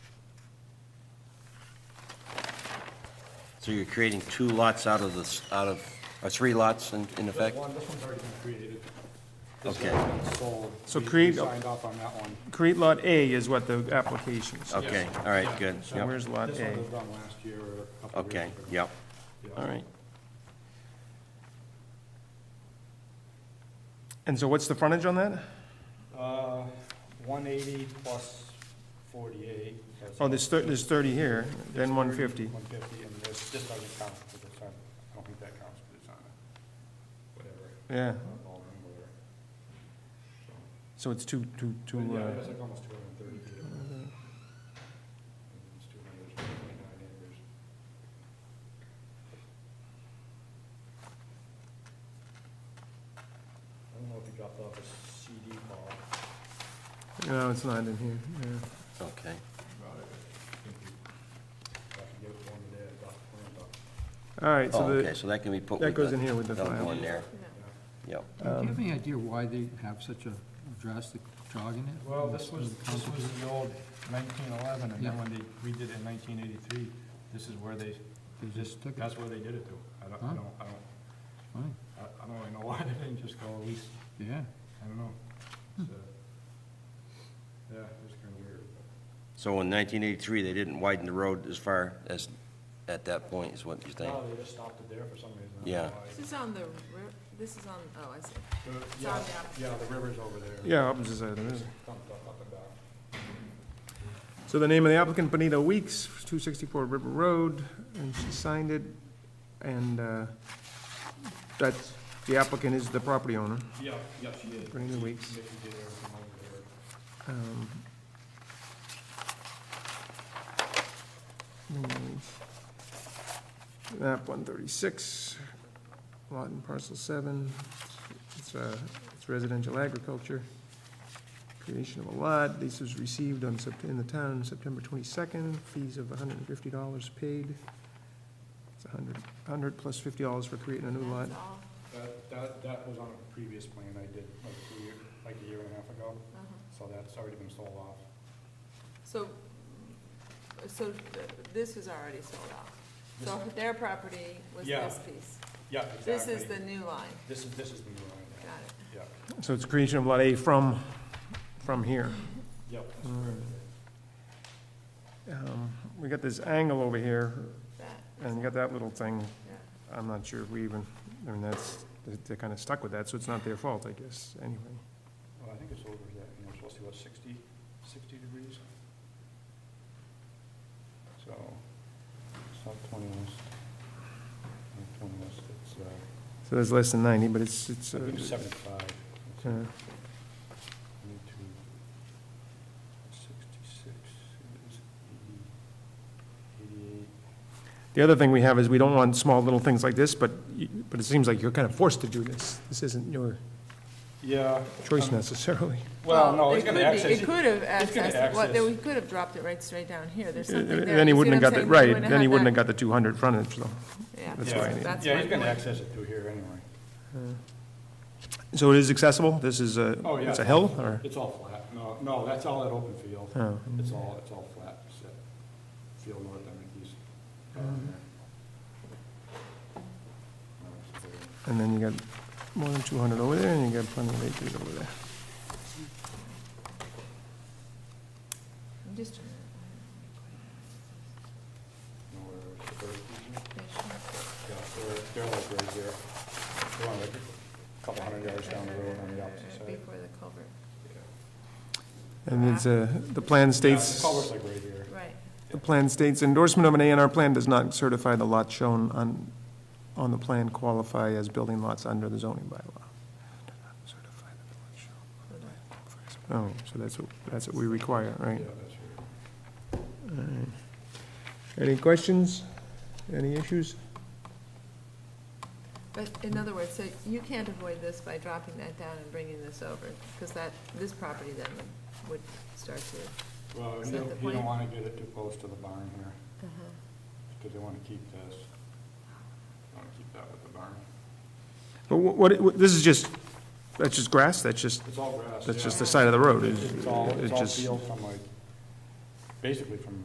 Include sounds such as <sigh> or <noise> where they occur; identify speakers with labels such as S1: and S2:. S1: So you're creating two lots out of this, out of, or three lots in, in effect?
S2: One, this one's already been created. This
S1: Okay.
S2: one's been sold.
S3: So
S2: We- we
S3: create a-
S2: Signed off on that one.
S3: Create Lot A is what the application is.
S1: Okay, all right, good,
S3: So
S1: yep,
S3: where's Lot
S2: This
S3: A?
S2: one was done last year or a couple of years
S1: okay,
S2: ago.
S1: yep,
S2: Yeah.
S1: all right.
S3: And so what's the frontage on that?
S2: Uh, 180 plus 48. that's-
S3: Oh, there's thir- there's 30 here, then 150.
S2: 150, and this, this doesn't count for the sign. I don't think that counts for the sign. Whatever.
S3: Yeah,
S2: All in, whatever. So-
S3: so it's two, two, two,
S2: But Yeah,
S3: uh,
S2: it's like almost 230 feet. It's 229 acres. I don't know if he dropped off a CD call.
S3: no, it's not in here, yeah.
S1: Okay,
S2: I could give it to him today, I dropped it off.
S3: All right,
S1: oh,
S3: so
S1: okay,
S3: the,
S1: so that can be put with
S3: that goes in
S1: the,
S3: here with the
S1: that'll go
S3: file.
S1: in there, yep.
S4: Do you have any idea why they have such a drastic jog in it?
S2: Well, this was, this was the old 1911, and then
S4: Yeah.
S2: when they redid it in 1983, this is where they,
S4: They just took it,
S2: that's where they did it to. I don't, I
S4: Huh?
S2: don't, I don't,
S4: Fine.
S2: I- I don't really know <laughs> why they didn't just go at least
S4: yeah.
S2: I don't know.
S4: Hmm.
S2: It's, uh, Yeah, it's kind of weird.
S1: So in nineteen eighty-three, they didn't widen the road as far as, at that point, is what you're saying?
S2: No, they just stopped it there for some reason. I don't
S1: Yeah.
S2: know why.
S5: This is on the, ri- this is on, oh, I see.
S2: The- Yeah, yeah, the river's over there.
S3: Yeah, opposite side of the river.
S2: Comes up, up and down.
S3: So the name of the applicant, Benita Weeks, 264 River Road, and she signed it, and uh, that's, the applicant is the property owner,
S2: Yeah, yeah, she did.
S3: Brenda Weeks.
S2: Mickey did everything over there.
S3: Um, mm, Map 136, lot and parcel 7, it's uh, it's residential agriculture, creation of a lot, this was received on, Sept- in the town September 22nd, fees of $150 paid, it's 100, 100 plus $50 for creating a new lot.
S5: That's all.
S2: That, that, that was on a previous plan I did like a year, like a year and a half ago,
S5: Uh-huh.
S2: so that's already been sold off.
S5: So, so th- this is already sold out. So
S2: This-
S5: their property was
S2: Yeah,
S5: this piece.
S2: Yeah,
S5: This is
S2: exactly.
S5: the new line,
S2: This is, this is the new line,
S5: got
S2: yeah.
S5: it.
S2: yeah,
S3: So it's creation of Lot A from, from here.
S2: yep. that's correct.
S3: Um, We got this angle over here,
S5: That,
S3: and you got that little thing
S5: yeah.
S3: I'm not sure if we even, I mean, that's, they- they're kind of stuck with that, so it's not their fault, I guess, anyway.
S2: Well, I think it's over that, you know, it's supposed to be about 60 60 degrees. So, it's not twenty west. Not twenty west, it's, uh,
S3: So that's less than ninety, but it's, it's,
S2: I think
S3: uh,
S2: seventy-five. It's
S3: uh,
S2: Twenty-two. Sixty-six, it is eighty, eighty-eight.
S3: the other thing we have is we don't want small little things like this, but, you- but it seems like you're kind of forced to do this. This isn't your
S2: Yeah.
S3: choice
S2: um,
S3: necessarily.
S2: Well, no,
S5: it
S2: it's gonna
S5: could be-
S2: access.
S5: It could have
S2: it's gonna
S5: accessed, what,
S2: access.
S5: we could have dropped it right straight down here, <laughs> there's something there.
S3: Then he
S5: You see
S3: wouldn't have
S5: what
S3: got the,
S5: I'm saying?
S3: right, then he wouldn't have got the two hundred frontage, though.
S5: Yeah,
S3: that's
S2: Yeah.
S3: why I need-
S5: that's
S2: Yeah,
S5: my
S2: he's gonna
S5: point.
S2: access it through here anyway.
S3: So it is accessible? This is a,
S2: Oh, yeah.
S3: it's a hill, or?
S2: It's all flat. No, no, that's all that open field.
S3: Oh.
S2: It's all, it's all flat, except field north, I mean, he's
S5: Mm-hmm.
S2: down there.
S3: And then you got more than two hundred over there, and you got plenty of acres over there.
S5: I'm just trying to-
S2: Nowhere, it's very easy.
S5: Sure.
S2: Yeah, they're, they're like right here. They're on like a couple hundred yards down the road on the opposite side.
S5: Before the culvert,
S3: And it's, uh, the plan
S2: Yeah, the
S3: states.
S2: Culvert's like right here.
S5: right.
S3: The plan states endorsement of an A and R plan does not certify the lots shown on, on the plan qualify as building lots under the zoning bylaw. Certify that the lots shown on the plan qualify as- Oh, so that's what, that's what we require,
S2: Yeah,
S3: right?
S2: that's here.
S3: Any questions? Any issues?
S5: But in other words, so you can't avoid this by dropping that down and bringing this over, because that, this property then would- would start to,
S2: Well,
S5: Is
S2: you
S5: that
S2: don't,
S5: the
S2: you don't
S5: point? Uh-huh.
S2: wanna get it too close to the barn here, because they wanna keep this. Wanna keep that with the barn.
S3: But wha- what, what, this is just, that's just grass, that's just,
S2: It's all grass.
S3: that's
S2: yeah.
S3: just the side of the road.
S2: It's all, it's all
S3: just-
S2: field from like, basically from